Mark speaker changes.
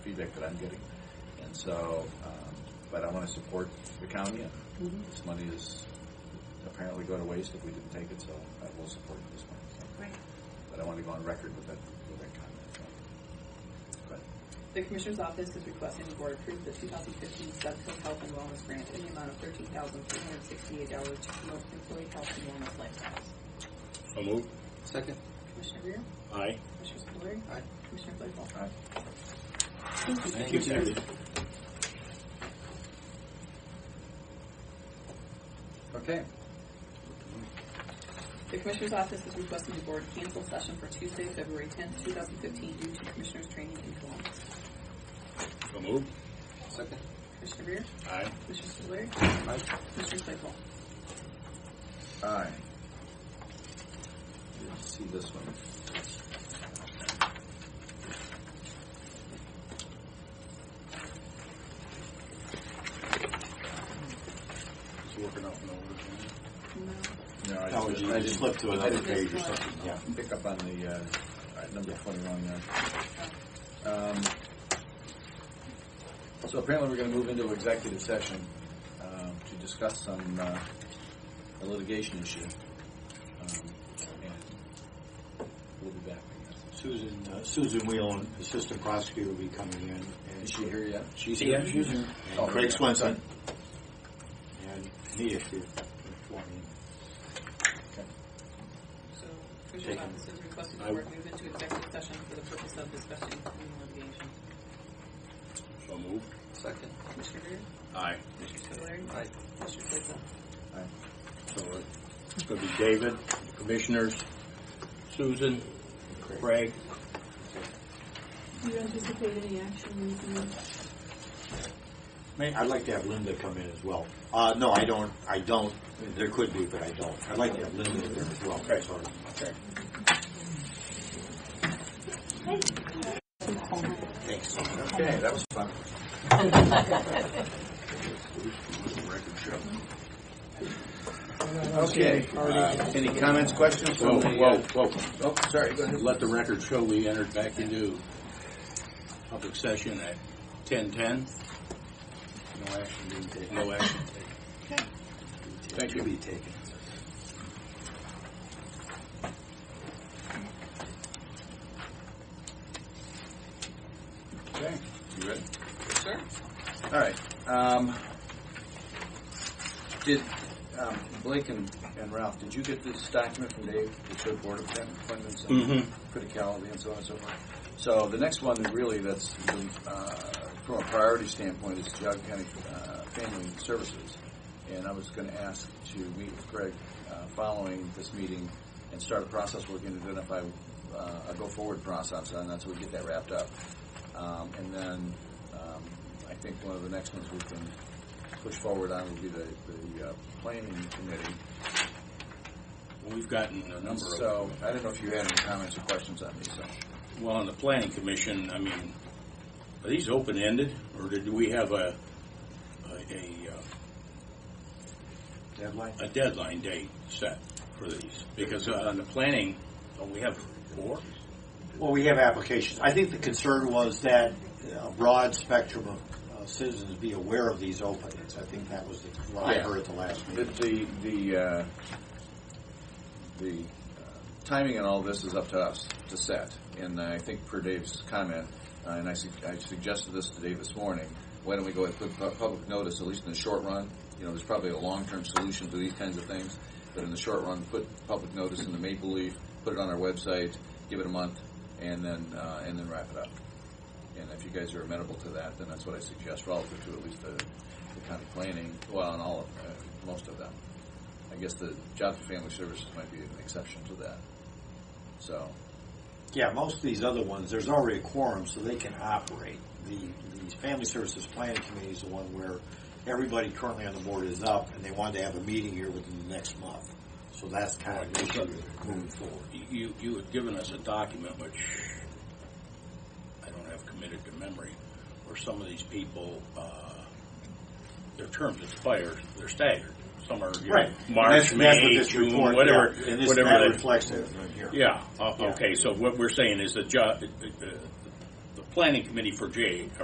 Speaker 1: feedback that I'm getting. And so, um, but I want to support the county. and This money is apparently going to waste if we didn't take it, so I will support this money. So-
Speaker 2: Great.
Speaker 1: But I want to go on record with that, with that comment. so. But
Speaker 2: The Commissioner's Office is requesting the Board approve the 2015 Subco Health and Wellness Grant in the amount of $13,368 to promote employee health and wellness lifestyles.
Speaker 3: So moved.
Speaker 4: Second.
Speaker 2: Commissioner Rea?
Speaker 3: Aye.
Speaker 2: Commissioner Spillier?
Speaker 4: Aye.
Speaker 2: Commissioner Claypool?
Speaker 1: Aye.
Speaker 2: Thank you.
Speaker 4: Thank you,
Speaker 3: Sandy.
Speaker 4: Okay.
Speaker 2: The Commissioner's Office is requesting the Board cancel session for Tuesday, February 10th, 2015 due to Commissioners' training in Columbus.
Speaker 3: So moved.
Speaker 4: Second.
Speaker 2: Commissioner Rea?
Speaker 3: Aye.
Speaker 2: Commissioner Spillier?
Speaker 4: Aye.
Speaker 2: Commissioner Claypool?
Speaker 1: Aye. Let's see this one.
Speaker 3: It's working out in order.
Speaker 2: No.
Speaker 1: No, I
Speaker 5: No,
Speaker 1: just-
Speaker 5: Oh, you
Speaker 1: I
Speaker 5: just flipped to
Speaker 1: I
Speaker 5: another
Speaker 1: didn't
Speaker 5: page or something, yeah.
Speaker 1: pick up on the, uh, all right, number twenty-one there. Um, So apparently we're gonna move into executive session, um, to discuss some, uh, a litigation issue. Um, and We'll be back, I guess.
Speaker 5: Susan, uh, Susan Whelan, assistant prosecutor, will be coming in. and
Speaker 1: Is she here yet?
Speaker 5: She's
Speaker 4: Yeah,
Speaker 5: here.
Speaker 4: she's here.
Speaker 5: And
Speaker 1: Oh, yeah.
Speaker 5: Craig Swenson. And me, if you if you want me.
Speaker 2: So, Commissioner's
Speaker 5: Taken.
Speaker 2: Office is requesting the
Speaker 3: I-
Speaker 2: Board move into executive session for the purpose of discussing criminal litigation.
Speaker 3: So moved.
Speaker 4: Second.
Speaker 2: Commissioner Rea?
Speaker 3: Aye.
Speaker 2: Commissioner Spillier?
Speaker 4: Aye.
Speaker 2: Commissioner Claypool?
Speaker 3: So
Speaker 5: uh,
Speaker 3: it's going to be David, commissioners, Susan, Craig.
Speaker 6: Do you anticipate any action in the
Speaker 5: May- I'd like to have Linda come in as well. Uh, no, I don't, I don't, there could be, but I don't. I'd like to have Linda there as well.
Speaker 3: Okay.
Speaker 5: Sorry.
Speaker 3: Okay.
Speaker 5: Thanks.
Speaker 1: Okay, that was fun. Okay, uh, any comments, questions
Speaker 3: Whoa,
Speaker 1: from the?
Speaker 3: whoa,
Speaker 1: uh,
Speaker 3: whoa.
Speaker 1: Oh, sorry, go ahead.
Speaker 3: Let the record show we entered back into public session at 10:10. No action being taken. No action taken.
Speaker 1: Thank you.
Speaker 5: Be taken.
Speaker 1: Okay, you ready? Sure. All right. Um, did um, Blake and, and Ralph? Did you get this document from Dave that showed board appointments and
Speaker 3: Mhm.
Speaker 1: criticality and so on and so forth? So the next one, really, that's uh, from a priority standpoint, is Geogga County uh, Family Services, and I was going to ask to meet with Greg uh, following this meeting and start a process where we can identify uh, a go-forward process on that, so we get that wrapped up. Um, and then um, I think one of the next ones we can push forward on will be the, the uh, planning committee.
Speaker 3: We've gotten a number of.
Speaker 1: So I don't know if you had any comments or questions on these. So.
Speaker 3: Well, on the planning commission, I mean, are these open-ended, or do do we have a, a, a, uh,
Speaker 5: Deadline?
Speaker 3: a deadline date set for these? Because uh, on the planning, uh, we have four?
Speaker 5: Well, we have applications. I think the concern was that a broad spectrum of uh, citizens be aware of these openings. I think that was the, what I
Speaker 1: Yeah.
Speaker 5: heard at the last
Speaker 1: The
Speaker 5: meeting.
Speaker 1: the the, uh, the uh, timing on all this is up to us to set, and I think per Dave's comment, uh, and I, su- I suggested this to Dave this morning. Why don't we go ahead and put pu- public notice, at least in the short run? You know, there's probably a long-term solution to these kinds of things, but in the short run, put public notice in the Maple Leaf, put it on our website, give it a month, and then uh, and then wrap it up. And if you guys are amenable to that, then that's what I suggest relative to at least the, the county planning, well, on all of, uh, most of them. I guess the Jobs and Family Services might be an exception to that. So,
Speaker 5: Yeah, most of these other ones, there's already a quorum, so they can operate. The, the Family Services Planning Committee is the one where everybody currently on the board is up, and they wanted to have a meeting here within the next month. So that's kind of the issue moving forward.
Speaker 3: You, you had given us a document which I don't have committed to memory, where some of these people, uh, their terms expire, they're staggered. Some are, you know,
Speaker 5: That's-
Speaker 3: March,
Speaker 5: that's what
Speaker 3: May,
Speaker 5: this
Speaker 3: June,
Speaker 5: report-
Speaker 3: whatever,
Speaker 5: yeah, And this,
Speaker 3: whatever.
Speaker 5: that
Speaker 3: they-
Speaker 5: reflects that right here.
Speaker 3: Yeah, uh,
Speaker 5: Yeah.
Speaker 3: okay, so what we're saying is uh, the job, the planning committee for Jay,